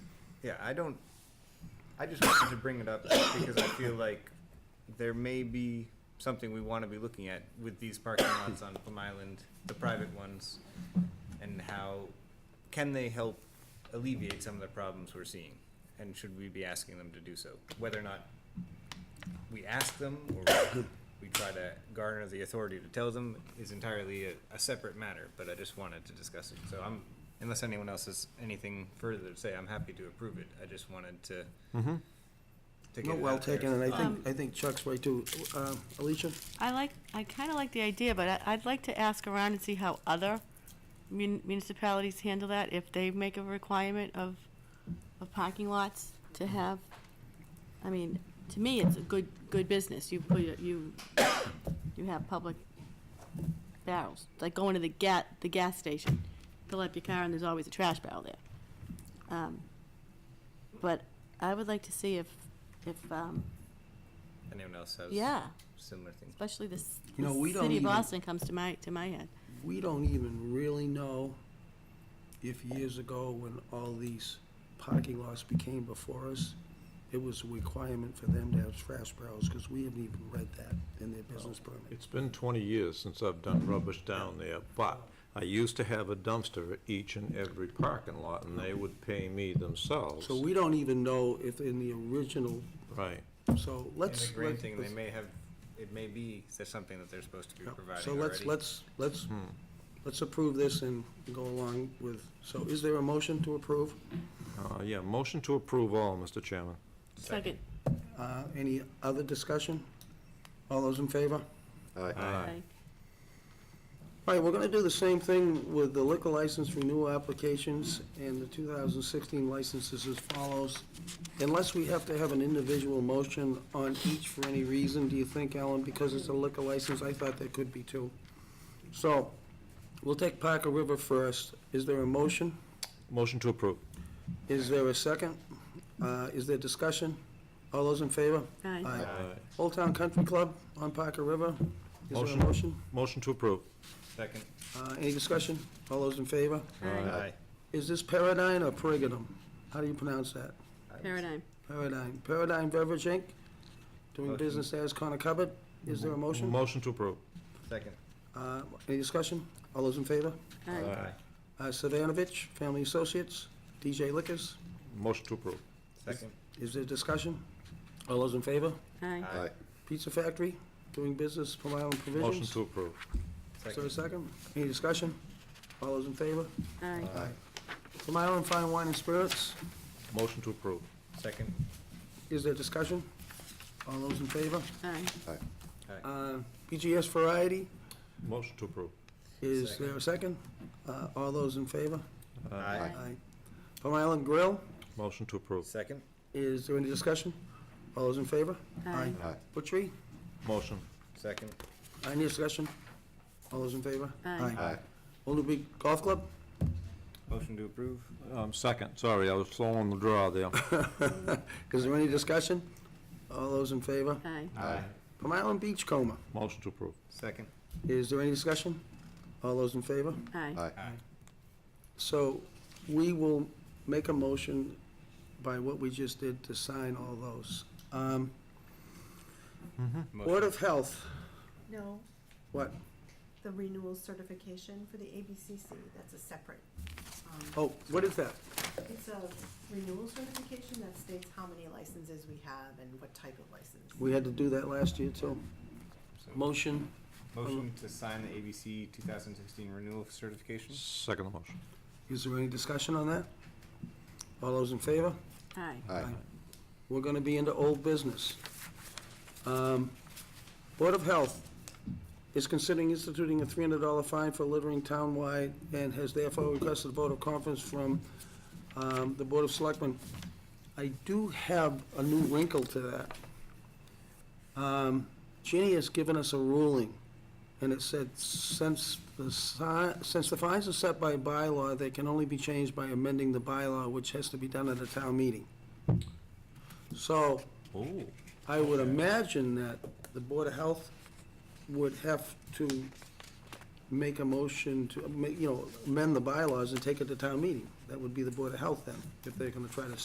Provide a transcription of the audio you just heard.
Yeah, I don't, I just wanted to bring it up because I feel like there may be something we want to be looking at with these parking lots on Plum Island, the private ones, and how, can they help alleviate some of the problems we're seeing? And should we be asking them to do so? Whether or not we ask them or we try to garner the authority to tell them is entirely a, a separate matter, but I just wanted to discuss it. So I'm, unless anyone else has anything further to say, I'm happy to approve it. I just wanted to. to get No, it well out there. Um, taken, and I think, I think Chuck's right too. Um, Alicia? I like, I kind of like the idea, but I, I'd like to ask around and see how other mun- municipalities handle that, if they make a requirement of, of parking lots to have, I mean, to me, it's a good, good business, you put, your- you, you have public barrels, It's like going to the ga, the gas station, fill up your car and there's always a trash barrel there. Um, But I would like to see if, if, um, Anyone else has? yeah, Similar things. especially the s- You know, we the don't city of even- Boston comes to my, to my head. We don't even really know if years ago, when all these parking lots became before us, it was a requirement for them to have trash barrels, because we haven't even read that in their business permit. It's been 20 years since I've done rubbish down there, but I used to have a dumpster at each and every parking lot, and they would pay me themselves. So we don't even know if in the original, Right. so And let's. the green let's- thing, they may have, it may be, there's something that they're supposed to be Yeah, providing So let's, already. Hmm. let's, let's, let's approve this and go along with, so is there a motion to approve? Uh, Yeah, motion to approve all, Mr. Chairman. Second. Uh, Any other discussion? All those in favor? Aye. All right, we're gonna do the same thing with the liquor license renewal applications and the 2016 licenses as follows. Unless we have to have an individual motion on each for any reason, do you think, Ellen? Because it's a liquor license, I thought there could be two. So, we'll take Parker River first. Is there a motion? Motion to approve. Is there a second? Uh, Is there discussion? All those in favor? Aye. Aye. Old Town Country Club on Parker River. Is there a Motion. motion? Motion to approve. Second. Uh, Any discussion? All those in favor? Aye. Aye. Is this Paradigm or Perigonum? How do you pronounce that? Paradigm. Paradigm. Paradigm Beverage Inc., doing Motion. business as Connor Cupboard. Is there a motion? Motion to approve. Second. Uh, Any discussion? All those in favor? Aye. Uh, Savanovich Family Associates, DJ Liquors. Motion to approve. Second. Is there discussion? All those in favor? Aye. Aye. Pizza Factory, doing business Plum Island Motion Provisions. to approve. Is there a Second. second? Any discussion? All those in favor? Aye. Plum Island Fine Wine and Spirits. Motion to approve. Second. Is there discussion? All those in favor? Aye. Aye. Uh, BGS Variety, Motion to approve. is there a second? Uh, All those in favor? Aye. Aye. Plum Island Grill, Motion to approve. Second. is there any discussion? All those in favor? Aye. Butchery, Motion. Second. any discussion? All those in favor? Aye. Old Newbury Golf Club, Motion to approve. Um, Second, sorry, I was slow on the draw there. is there any discussion? All those in favor? Aye. Aye. Plum Island Beach Coma, Motion to approve. Second. is there any discussion? All those in favor? Aye. So we will make a motion by what we just did to sign all those. Um, Motion. Board of Health, No, what? the renewal certification for the ABCC, that's a separate. um, Oh, what is that? It's a renewal certification that states how many licenses we have and what type of license. We had to do that last year too. So- Motion, Motion to sign the ABC 2016 renewal certification? Second motion. is there any discussion on that? All those in favor? Aye. We're gonna be into old business. Um, Board of Health is considering instituting a three hundred dollar fine for littering townwide and has therefore requested a vote of confidence from, um, the Board of Selectmen. I do have a new wrinkle to that. Um, Ginny has given us a ruling, and it said, since the si, since the fines are set by bylaw, they can only be changed by amending the bylaw, which has to be done at a town meeting. So, Ooh. I would imagine that the Board of Health would have to make a motion to, ma- you know, amend the bylaws and take it to town meeting. That would be the Board of Health then, if they're gonna try to